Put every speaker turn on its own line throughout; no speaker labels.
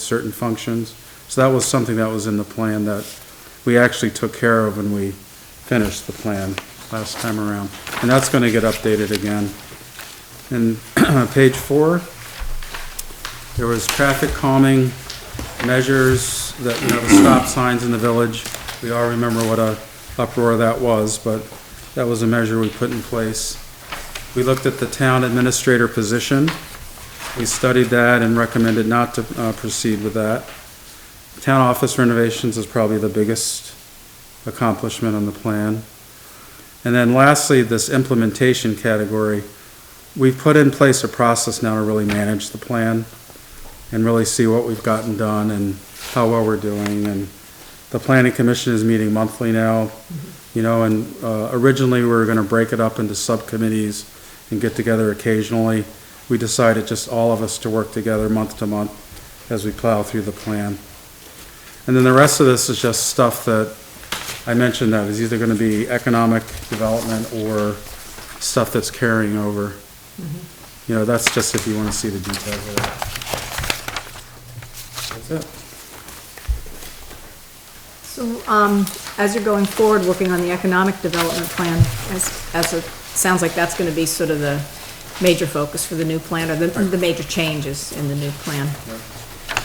certain functions. So that was something that was in the plan that we actually took care of when we finished the plan last time around. And that's gonna get updated again. And page four, there was traffic calming measures that, you know, the stop signs in the village. We all remember what a uproar that was, but that was a measure we put in place. We looked at the town administrator position. We studied that and recommended not to uh, proceed with that. Town office renovations is probably the biggest accomplishment on the plan. And then lastly, this implementation category, we've put in place a process now to really manage the plan and really see what we've gotten done and how well we're doing. And the planning commission is meeting monthly now, you know, and uh, originally we were going to break it up into subcommittees and get together occasionally. We decided just all of us to work together month to month as we plow through the plan. And then the rest of this is just stuff that I mentioned that is either going to be economic development or stuff that's carrying over. You know, that's just if you want to see the details of that. That's it.
So, um, as you're going forward, working on the economic development plan, as, as it sounds like that's gonna be sort of the major focus for the new plan, or the, the major changes in the new plan.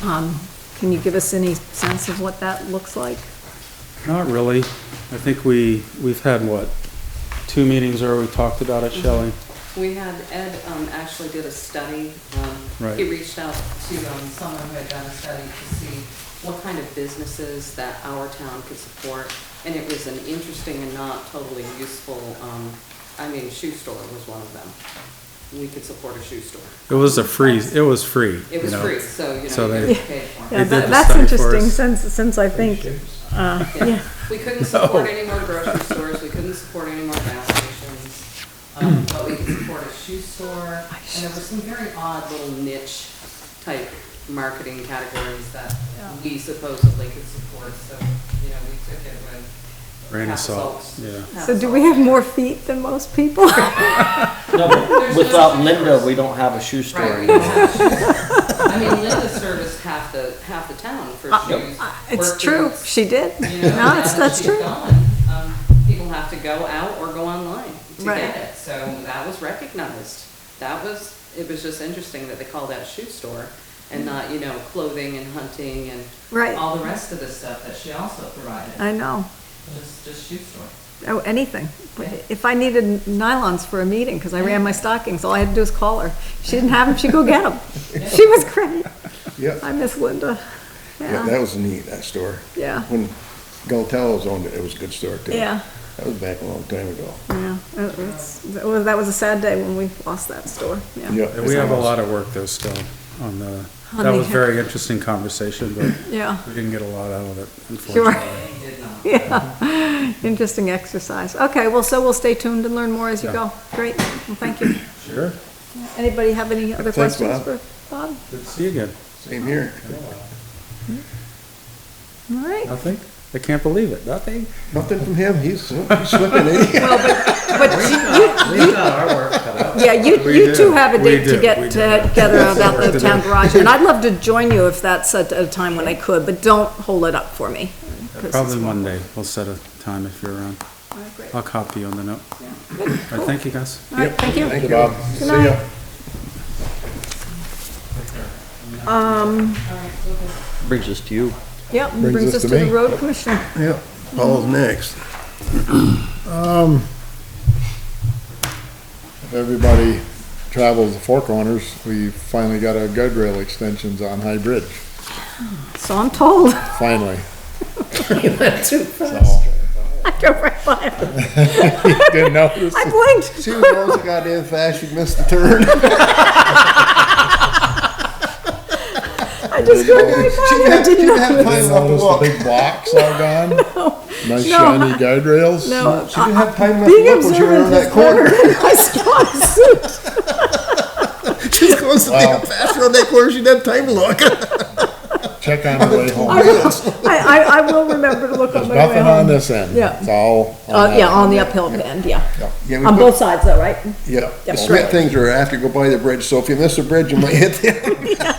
Um, can you give us any sense of what that looks like?
Not really. I think we, we've had, what, two meetings where we talked about
Mm-hmm.
it, Shelley?
We had, Ed um, actually did a study. um,
Right.
He reached out to um, someone who had done a study to see what kind of businesses that our town could support. And it was an interesting and not totally useful, um, I mean, shoe store was one of them. We could support a shoe store.
It was a free, it was free.
It
you
was
know.
free, so, you
So
know,
they-
you get paid for it.
They
Yeah,
did the
that- that's
study for
interesting,
us.
since, since I think, uh, yeah,
We couldn't support any more grocery stores, we couldn't support any more gas stations,
Hmm.
um, but we could support a shoe store, and there were some very odd little niche type marketing categories that we supposedly could support, so, you know, we took it with.
Grain
half
of salt,
salt.
yeah.
Half
so do
salt.
we have more feet than most people?
No,
There's
but
no
without
shoe
Linda,
stores.
we don't have a shoe store
Right, we
anymore.
don't have shoe stores. I mean, Linda serviced half the, half the town for shoes.
It's
work
true,
boots,
she did.
You know,
No, it's,
now that
that's
she's
true.
gone, um, People have to go out or go online to
Right.
get it, so that was recognized. That was, it was just interesting that they called that shoe store and not, you know, clothing and hunting
Mm-hmm. Right. Uh,
and all the rest of the stuff that she also provided,
I know.
just, just shoe store.
Oh, anything. If I needed nylons for a meeting, because I ran my stockings, all I had to do was call her. She didn't have them, she'd go get them. She was great.
Yeah,
I miss Linda.
yeah,
Yeah,
that was neat, that store.
yeah,
When Galtello's owned it, it was a good store too.
yeah,
That was back a long time ago.
yeah. It was- that was- That was a sad day when we lost that store, yeah.
Yeah.
And we have a lot of work though still on the,
On
that
the-
was very interesting conversation, but
Yeah,
we didn't get a lot out of it,
sure,
unfortunately.
yeah. Interesting exercise. Okay, well, so we'll stay tuned and learn more as you
Yeah.
go. Great, well, thank you.
Sure.
Anybody have any other
Thanks,
questions for
Bob.
Bob?
Good to see you again.
Same here.
All right.
Nothing? I can't believe it. Nothing?
Nothing from him, he's he's slipping, ain't he?
Yeah, you,
We
you two
do.
have a
We
date to
do. We
get
do.
together about
Work to
the
do.
town garage, and I'd love to join you if that's at a time when I could, but don't hold it up for me. 'cause it's-
Probably Monday. We'll set a time if you're around.
All right, great.
I'll copy you on the note. All right, thank you guys.
All right, thank you.
Thank you, Bob. See ya.
Brings us to you.
Yep, brings us to the
me.
road commissioner.
Yeah, Paul's next. Um,
If everybody travels the Four Corners, we finally got our guardrail extensions on High Bridge,
So I'm told.
finally.
I drove right by him.
Didn't notice.
I blinked.
See who goes the goddamn fast, you missed the turn.
I just drove right by him. I didn't
Didn't have
know.
time
Didn't
left to
notice the
look.
big blocks all gone? Nice
No.
shiny guardrails?
No,
She didn't have time left to
Uh, being
look when she went around
observant is
that corner.
better than I saw his suit.
She goes the damn fast around that corner, she didn't have time to look.
Check on the way home.
I will- I, I, I will remember to look on
There's
my way
nothing on
home.
this end.
Yeah.
It's all. on
Uh,
that
yeah,
end.
on the uphill end, yeah.
Yeah, we
On
put-
both sides though, right?
Yeah,
Yeah.
the Smith things are, I have to go by the bridge, so if you miss the bridge, you might hit the